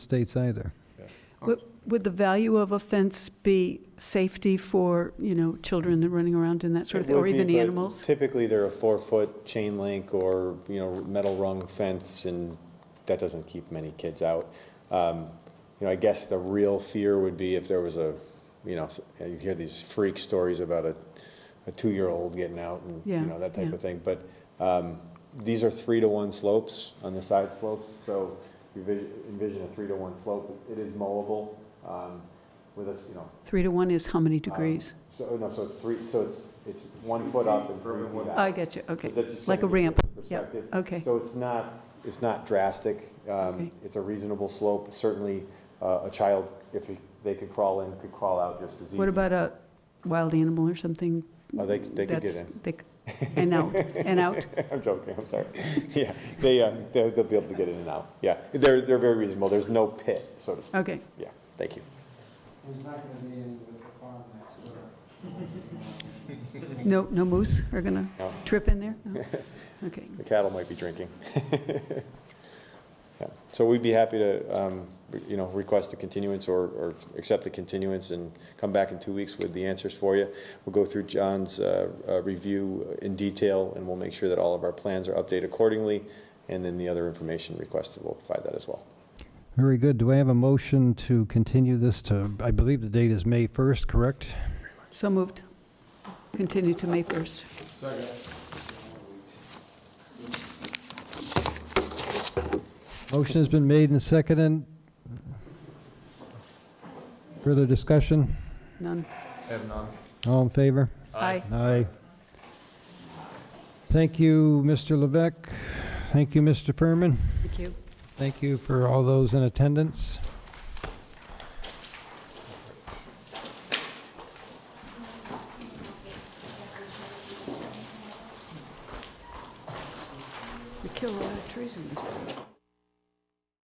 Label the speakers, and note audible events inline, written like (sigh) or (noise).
Speaker 1: states either.
Speaker 2: Would- Would the value of a fence be safety for, you know, children running around and that sort
Speaker 3: It
Speaker 2: of thing, or
Speaker 3: would be,
Speaker 2: even
Speaker 3: but
Speaker 2: animals?
Speaker 3: Typically, they're a four-foot chain link or, you know, metal rung fence, and that doesn't keep many kids out. Um, You know, I guess the real fear would be if there was a, you know, s- you hear these freak stories about a, a two-year-old getting out and, you
Speaker 2: Yeah,
Speaker 3: know, that type
Speaker 2: yeah.
Speaker 3: of thing. But um, these are three-to-one slopes on the side slopes, so you envis- envision a three-to-one slope. It is mowable um, with a, s- you know,
Speaker 2: Three to one is how many degrees?
Speaker 3: so, oh, no, so it's three, so it's, it's one foot up and three feet out.
Speaker 2: I get you, okay.
Speaker 3: So that's just
Speaker 2: Like a
Speaker 3: gonna give you
Speaker 2: ramp,
Speaker 3: Um,
Speaker 2: yep,
Speaker 3: perspective.
Speaker 2: okay.
Speaker 3: So it's not, it's not drastic.
Speaker 2: Okay.
Speaker 3: Um, It's a reasonable slope. Certainly, uh, a child, if he- they could crawl in, could crawl out just as easy.
Speaker 2: What about a wild animal or something?
Speaker 3: Oh, they c- they could
Speaker 2: That's-
Speaker 3: get in.
Speaker 2: they c- And out,
Speaker 3: (laughs)
Speaker 2: and out,
Speaker 3: (laughs) I'm joking, I'm sorry. (laughs) Yeah, they, uh, they'll they'll be able to get in and out. Yeah, they're, they're very reasonable. There's no pit, so to speak.
Speaker 2: okay.
Speaker 3: Yeah, thank you.
Speaker 4: There's not gonna be any with the farm next door.
Speaker 2: No, no moose are going to
Speaker 3: No.
Speaker 2: trip in there?
Speaker 3: (laughs)
Speaker 2: No? Okay,
Speaker 3: The cattle might be drinking. (laughs) Yeah, So we'd be happy to, um, re- you know, request a continuance or, or accept the continuance and come back in two weeks with the answers for you. We'll go through John's uh, uh, review in detail, and we'll make sure that all of our plans are updated accordingly, and then the other information requested, we'll provide that as well.
Speaker 1: (laughs) Very good. Do I have a motion to continue this to, I believe the date is May 1st, correct?
Speaker 2: so moved. Continue to May 1st.
Speaker 1: Motion has been made and seconded. Further discussion?
Speaker 2: None.
Speaker 1: All in favor?
Speaker 2: Aye.
Speaker 1: Aye. Thank you, Mr. Levesque. Thank you, Mr. Furman.
Speaker 2: Thank you.
Speaker 1: Thank you for all those in attendance.
Speaker 2: We kill a lot of trees in this world.